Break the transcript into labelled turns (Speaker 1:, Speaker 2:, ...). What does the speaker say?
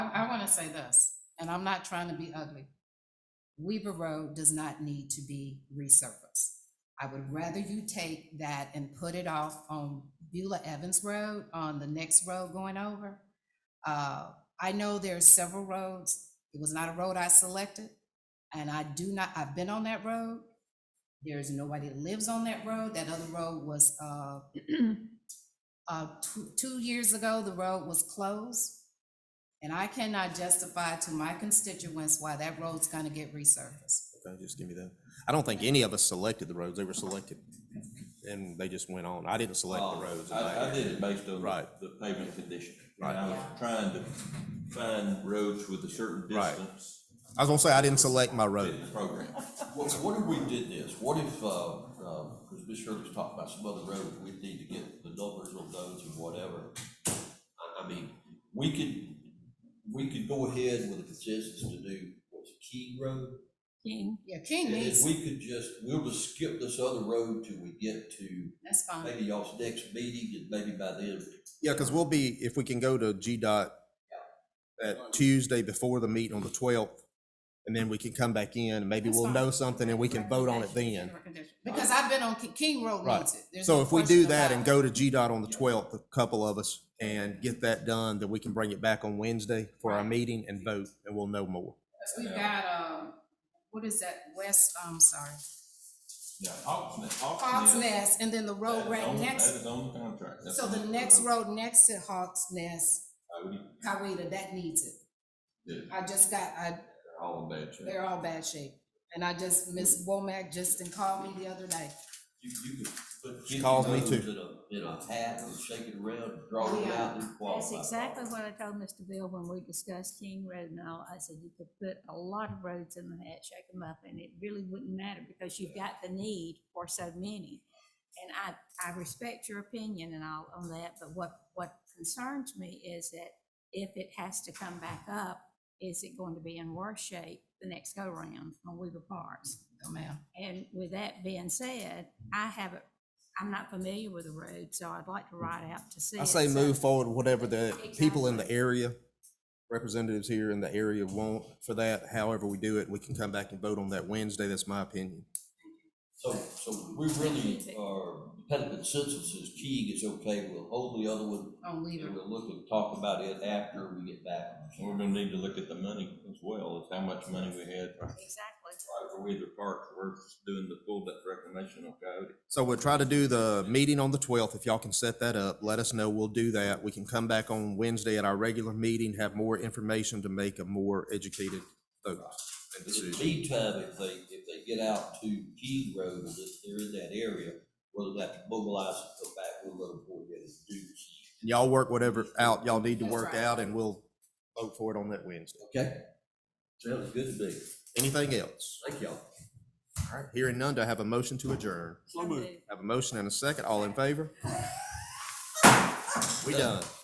Speaker 1: say this, and I'm not trying to be ugly. Weaver Road does not need to be resurfaced. I would rather you take that and put it off on Beulah Evans Road, on the next road going over. Uh, I know there are several roads. It was not a road I selected. And I do not, I've been on that road. There is nobody that lives on that road. That other road was, uh, uh, two, two years ago, the road was closed. And I cannot justify to my constituents why that road's gonna get resurfaced.
Speaker 2: Okay, just give me that. I don't think any of us selected the roads. They were selected. And they just went on. I didn't select the
Speaker 3: Uh,
Speaker 2: roads.
Speaker 3: I, I did it based on
Speaker 2: Right.
Speaker 3: the pavement condition.
Speaker 2: Right.
Speaker 3: I was trying to find roads with a certain
Speaker 2: Right.
Speaker 3: distance
Speaker 2: I was gonna say, I didn't select my road.
Speaker 3: in the program. What, what if we did this? What if, uh, uh, because Ms. Shirley's talking about some other roads, we need to get the numbers on those and whatever. I, I mean, we could, we could go ahead with a consensus to do, what's it, Key Road?
Speaker 4: King.
Speaker 1: Yeah, King
Speaker 3: And if
Speaker 1: needs,
Speaker 3: we could just, we'll just skip this other road till we get to
Speaker 1: that's fine.
Speaker 3: maybe y'all's next meeting, and maybe by then,
Speaker 2: Yeah, because we'll be, if we can go to GDOT that Tuesday before the meeting on the twelfth, and then we can come back in and maybe
Speaker 1: That's
Speaker 2: we'll
Speaker 1: fine.
Speaker 2: know something and we can vote on it then.
Speaker 1: Because I've been on, Ki- King Road
Speaker 2: Right.
Speaker 1: needs it. There's
Speaker 2: So
Speaker 1: no
Speaker 2: if we
Speaker 1: question
Speaker 2: do that
Speaker 1: about
Speaker 2: and
Speaker 1: it.
Speaker 2: go to GDOT on the twelfth, a couple of us, and get that done, then we can bring it back on Wednesday for our meeting and vote, and we'll know more.
Speaker 1: 'Cause We've got, um, what is that, West, I'm sorry,
Speaker 3: Yeah, Hawks Nest.
Speaker 1: Hawks Nest, and then the road right
Speaker 3: That
Speaker 1: next,
Speaker 3: is on the contract. That's
Speaker 1: so the
Speaker 3: on
Speaker 1: next road next to Hawks Nest,
Speaker 3: I would-
Speaker 1: Kawita, that needs it.
Speaker 3: yeah,
Speaker 1: I just got, I,
Speaker 3: They're all in bad shape.
Speaker 1: they're all bad shape. And I just, Miss Womack just called me the other day.
Speaker 3: You, you could put
Speaker 2: She
Speaker 3: fifty
Speaker 2: calls me
Speaker 3: loads
Speaker 2: too.
Speaker 3: In a, in a hat and shake it around, draw it
Speaker 1: Yeah.
Speaker 3: out and qualify.
Speaker 4: That's exactly what I told Mr. Bill when we discussed King Road and all. I said you could put a lot of roads in the hat, shake them up, and it really wouldn't matter because you've got the need for so many. And I, I respect your opinion and all on that, but what, what concerns me is that if it has to come back up, is it going to be in worse shape the next go-round on Weaver Parks?
Speaker 1: Oh, ma'am.
Speaker 4: And with that being said, I haven't, I'm not familiar with the road, so I'd like to ride out to see
Speaker 2: I
Speaker 4: it,
Speaker 2: say
Speaker 4: so-
Speaker 2: move forward, whatever the people in the area, representatives here in the area want for that, however we do it, we can come back and vote on that Wednesday, that's my opinion.
Speaker 3: So, so we really are, kind of consensus is Keeg is okay, we'll hold the other one,
Speaker 1: On
Speaker 3: and
Speaker 1: Weaver.
Speaker 3: we'll look and talk about it after we get back.
Speaker 5: We're gonna need to look at the money as well, is how much money we had for
Speaker 4: Exactly.
Speaker 5: for Weaver Park, we're doing the full depth reclamation on Coyote.
Speaker 2: So we'll try to do the meeting on the twelfth, if y'all can set that up, let us know, we'll do that. We can come back on Wednesday at our regular meeting, have more information to make a more educated vote and
Speaker 3: In the
Speaker 2: decision.
Speaker 3: meantime, if they, if they get out to Key Road, and if they're in that area, we'll have to mobilize and come back, we'll let them go ahead and do Key.
Speaker 2: And Y'all work whatever out y'all need to
Speaker 1: That's
Speaker 2: work
Speaker 1: right.
Speaker 2: out, and we'll vote for it on that Wednesday.
Speaker 3: Okay? Sounds good to me.
Speaker 2: Anything else?
Speaker 3: Thank y'all.
Speaker 2: All right, hearing none, do I have a motion to adjourn?
Speaker 4: So moved.
Speaker 2: Have a motion and a second, all in favor? We done.